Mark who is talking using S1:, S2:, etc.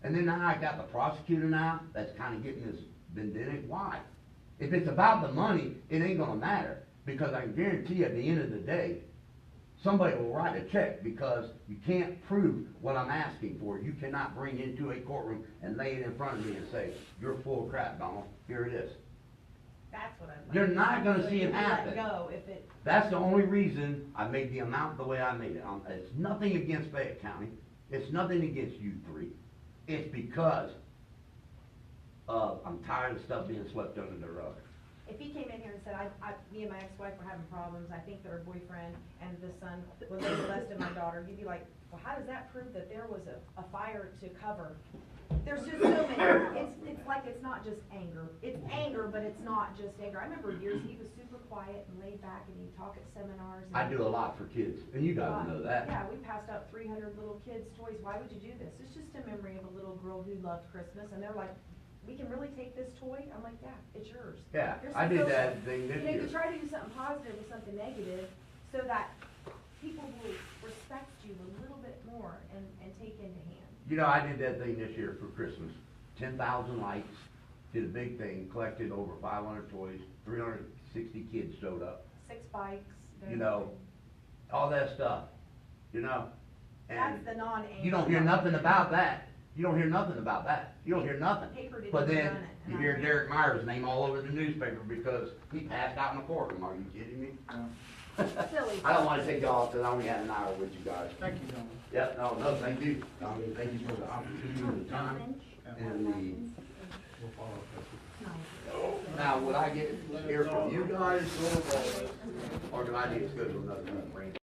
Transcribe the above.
S1: And then now I got the prosecutor now, that's kinda getting this vendetta, why? If it's about the money, it ain't gonna matter, because I can guarantee you, at the end of the day, somebody will write a check, because you can't prove what I'm asking for, you cannot bring into a courtroom and lay it in front of me and say, you're full of crap, Donald, here it is.
S2: That's what I'm.
S1: You're not gonna see it happen.
S2: Let go if it,
S1: That's the only reason I made the amount the way I made it. Um, It's nothing against Fayette County. It's nothing against you three. It's because of, I'm tired of stuff being swept under the rug.
S2: if he came in here and said, I, I, me and my ex-wife were having problems, I think that her boyfriend and the son was molested my daughter, you'd be like, well, how does that prove that there was a, a fire to cover? There's just so many, it's, it's like, it's not just anger, it's anger, but it's not just anger. I remember years, he was super quiet and laid back and he'd talk at seminars. and-
S1: I do a lot for kids, and you guys know that.
S2: Yeah, we passed out three hundred little kids' toys, why would you do this? It's just a memory of a little girl who loved Christmas, and they're like, we can really take this toy? I'm like, yeah, it's yours.
S1: Yeah,
S2: You're
S1: I did
S2: supposed-
S1: that thing
S2: You
S1: this
S2: know, you
S1: year.
S2: try to do something positive with something negative, so that people will respect you a little bit more and, and take into hand.
S1: You know, I did that thing this year for Christmas. Ten thousand lights, did a big thing, collected over five hundred toys, three hundred and sixty kids showed up.
S2: Six bikes.
S1: You know, all that stuff, you know? and.
S2: That's the non-anger.
S1: You don't hear nothing about that. You don't hear nothing about that. You don't hear nothing.
S2: Paper didn't
S1: But
S2: even
S1: then
S2: run it, and
S1: you
S2: I
S1: hear
S2: read it.
S1: Derek Meyer's name all over the newspaper because he passed out in the courtroom. Are you kidding me?
S2: Silly.
S1: I don't wanna take y'all, cause I only had an hour with you guys.
S3: Thank you, Donald.
S1: Yep, no, no, thank you. I mean, thank you for the opportunity and the time and
S3: We'll follow up.
S1: the, now, would I get, to hear from you guys? Or do I need to schedule another meeting?